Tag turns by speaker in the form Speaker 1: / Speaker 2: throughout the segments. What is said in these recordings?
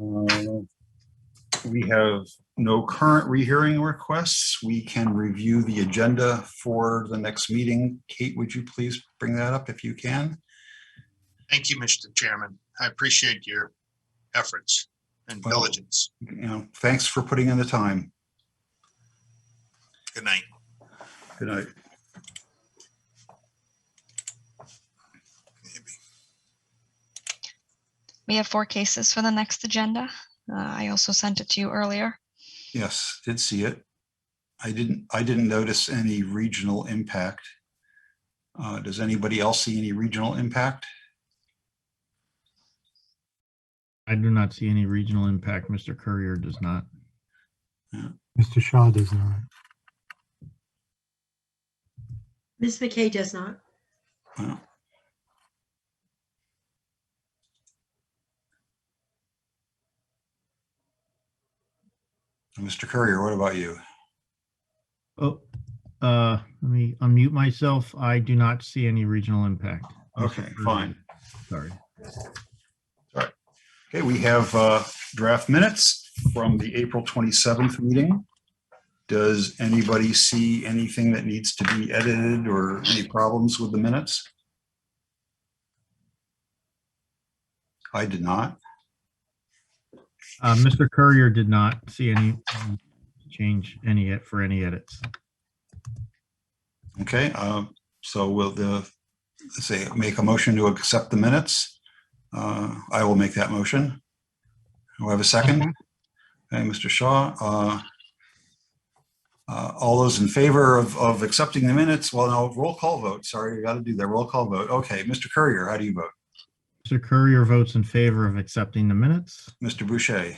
Speaker 1: Uh, We have no current rehearing requests. We can review the agenda for the next meeting. Kate, would you please bring that up if you can?
Speaker 2: Thank you, Mr. Chairman. I appreciate your efforts and
Speaker 1: Well-
Speaker 2: diligence.
Speaker 1: You know, thanks for putting in the time.
Speaker 2: Good night.
Speaker 1: Good night.
Speaker 3: We have four cases for the next agenda. Uh, I also sent it to you earlier.
Speaker 1: Yes, did see it. I didn't, I didn't notice any regional impact. Uh, Does anybody else see any regional impact?
Speaker 4: I do not see any regional impact. Mr. Courier does not.
Speaker 5: Mr. Shaw does not.
Speaker 6: Ms. McKay does not.
Speaker 1: Well. Mr. Courier, what about you?
Speaker 4: Oh, uh, let me unmute myself. I do not see any regional impact. Mr.
Speaker 1: Okay,
Speaker 4: Courier,
Speaker 1: fine.
Speaker 4: Sorry.
Speaker 1: Okay, we have uh, draft minutes from the April 27th meeting. Does anybody see anything that needs to be edited or any problems with the minutes? I did not.
Speaker 4: Uh, Mr. Courier did not see any um, change any ed- for any edits.
Speaker 1: Okay, uh, so will the, say, make a motion to accept the minutes? Uh, I will make that motion. Do I have a second? Okay, Mr. Shaw. uh, uh, All those in favor of, of accepting the minutes? Well, no, roll call vote. Sorry, we got to do that. Roll call vote. Okay, Mr. Courier, how do you vote?
Speaker 4: Mr. Courier votes in favor of accepting the minutes.
Speaker 1: Mr. Boucher,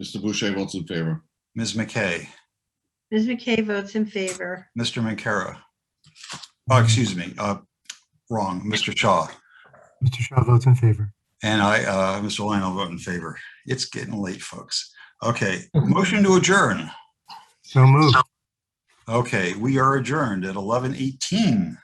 Speaker 7: Mr. Boucher votes in favor.
Speaker 1: Ms. McKay,
Speaker 6: Ms. McKay votes in favor.
Speaker 1: Mr. Mancara. Oh, excuse me, uh, wrong, Mr. Shaw.
Speaker 5: Mr. Shaw votes in favor.
Speaker 1: And I, uh, Mr. Lyon, I'll vote in favor. It's getting late, folks. Okay, motion to adjourn.
Speaker 5: So moved.
Speaker 1: Okay, we are adjourned at eleven eighteen.